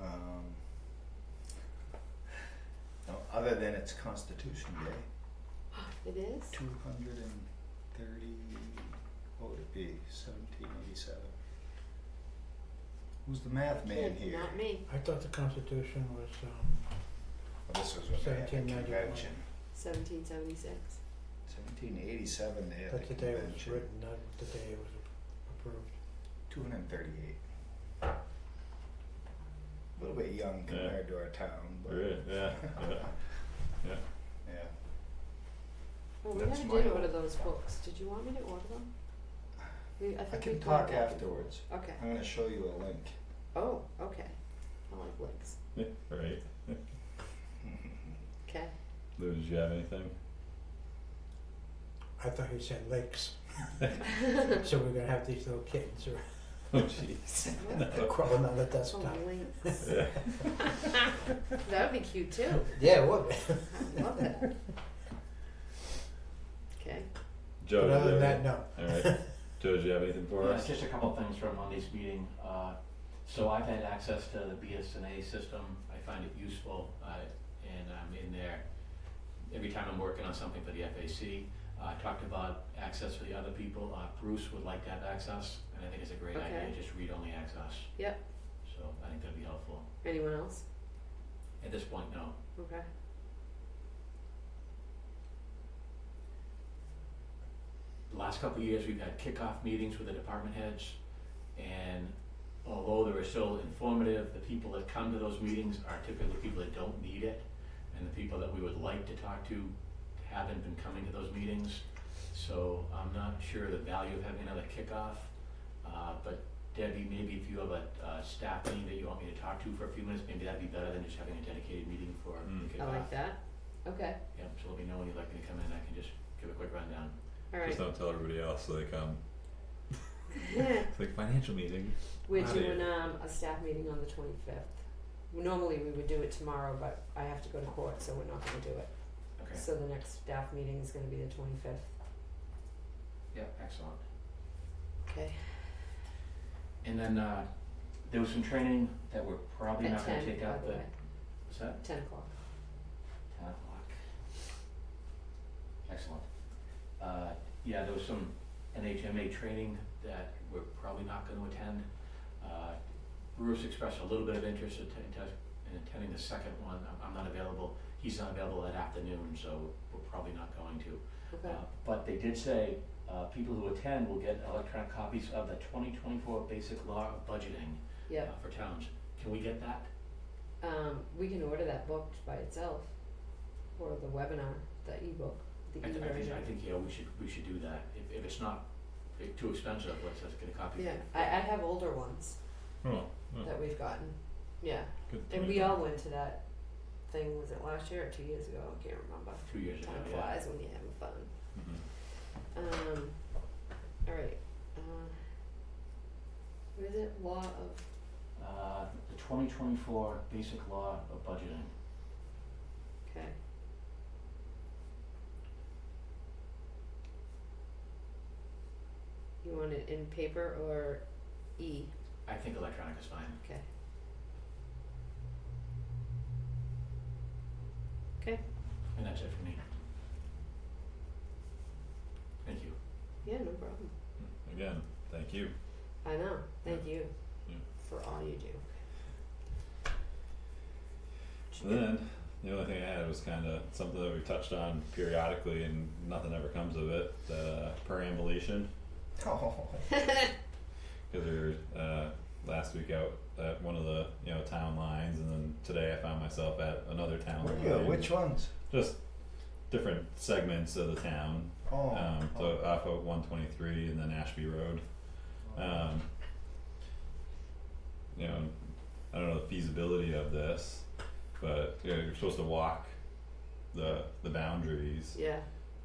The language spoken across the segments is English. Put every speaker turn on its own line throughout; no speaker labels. Um, other than it's Constitution Day,
It is?
two hundred and thirty, what would it be, seventeen eighty-seven? Who's the math man
Kid,
here?
Not me.
I thought the Constitution was, um,
Well, this was when they had the
1791.
convention,
Seventeen seventy six.
seventeen eighty-seven, they had
that's
the
the day it was
convention,
written, not the day it was approved.
two hundred and thirty-eight. A little bit young
Yeah.
compared to our town, but.
Really? Yeah, yeah, yeah.
Yeah.
Well, we
That's
never
mine.
did order those books. Did you want me to order them? We, I
I
think we
can
bought
talk
that.
afterwards.
Okay.
I'm gonna show you a link.
Oh, okay. I like links.
Right.
Okay.
Lou, did you have anything?
I thought you said lakes, so we're gonna have these little kids or
Oh, jeez.
crawling on the desktop.
Oh, links.
Yeah.
That would be cute too.
Yeah, it would be.
I love that. Okay.
Joe,
But
did you
other than
have
that,
any-
no.
Alright, Joe, do you have anything for
Yeah,
us?
Just a couple things from Monday's meeting. Uh, So I've had access to the BSNA system. I find it useful, uh, and I'm in there every time I'm working on something for the FAC. Uh, I talked about access for the other people. Uh, Bruce would like to have access, and I think it's a great idea,
Okay.
just read-only access.
Yep.
So I think that'd be helpful.
Anyone else?
At this point, no.
Okay.
The last couple of years, we've had kickoff meetings with the department heads, and although they were still informative, the people that come to those meetings are typically people that don't need it, and the people that we would like to talk to haven't been coming to those meetings. So I'm not sure the value of having another kickoff, uh, but Debbie, maybe if you have a, uh staff meeting that you want me to talk to for a few minutes, maybe that'd be better than just having a dedicated meeting for
Mm.
the
I
kickoff.
like that. Okay.
Yep, so let me know when you'd like me to come in, I can just give a quick rundown.
All right.
Just don't tell everybody else so they come. It's like financial meeting.
We're
Outta here.
doing um a staff meeting on the twenty fifth. Normally we would do it tomorrow, but I have to go to court, so we're not gonna do it.
Okay.
So the next staff meeting is gonna be the twenty fifth.
Yeah, excellent.
Okay.
And then uh there was some training that we're probably
At
not gonna
ten,
take
by
out
the
the,
way.
what's that?
Ten o'clock.
Ten o'clock. Excellent. Uh yeah, there was some NHMA training that we're probably not gonna attend. Uh Bruce expressed a little bit of interest in atten- in attending the second one. I'm I'm not available. He's not available that afternoon, so we're probably not going to.
Okay.
Uh, But they did say, uh, people who attend will get electronic copies of the twenty twenty-four basic law of budgeting uh,
Yep.
for towns. Can we get that?
Um we can order that book by itself or the webinar, the ebook, the
I
e
th- I think,
version.
I think, yeah, we should, we should do that. If, if it's not i- too expensive, let's just get a copy.
Yeah, I I have older ones
Oh,
Hmm.
oh,
that we've gotten. Yeah.
good
And
point. Mm-hmm.
we all went to that thing, was it last year or two years ago? I can't remember.
Two years ago,
Time
yeah.
flies when you're having fun.
Mhm.
Um, all right, uh, what is it, law of,
Uh, the twenty twenty-four basic law of budgeting.
okay, you want it in paper or E,
I think electronic is fine.
okay,
And that's it for me. Thank you.
yeah, no problem,
Mm-hmm. Again, thank you.
I know, thank you
Yeah.
for all you do.
So then, the only thing I had was kinda something that we've touched on periodically and nothing ever comes of it, uh, perambulation.
Oh,
Cause we were, uh, last week out at one of the, you know, town lines and then today I found myself at another town line.
really? Which ones?
Just different segments of the town,
Oh.
um,
oh.
so off of one twenty-three and then Ashby Road. Um, you know, I don't know the feasibility of this, but you know, you're supposed to walk the the boundaries,
Yeah,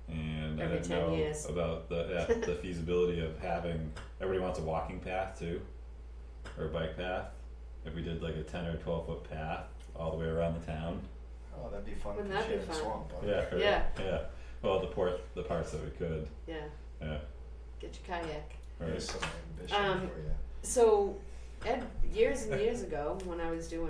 and I
Every
didn't
10
know
years.
about the yeah, the feasibility of having everybody wants a walking path too, or a bike path. If we did like a ten or twelve foot path all the way around the town,
Oh, that'd be fun
Wouldn't
to
that be
share the
fun?
swamp on.
yeah, or-
Yeah.
yeah. Well, the port the parts that we could,
yeah,
yeah,
get your kayak.
or
There's some ambition
Um,
for you.
So, Ed, years and years ago, when I was doing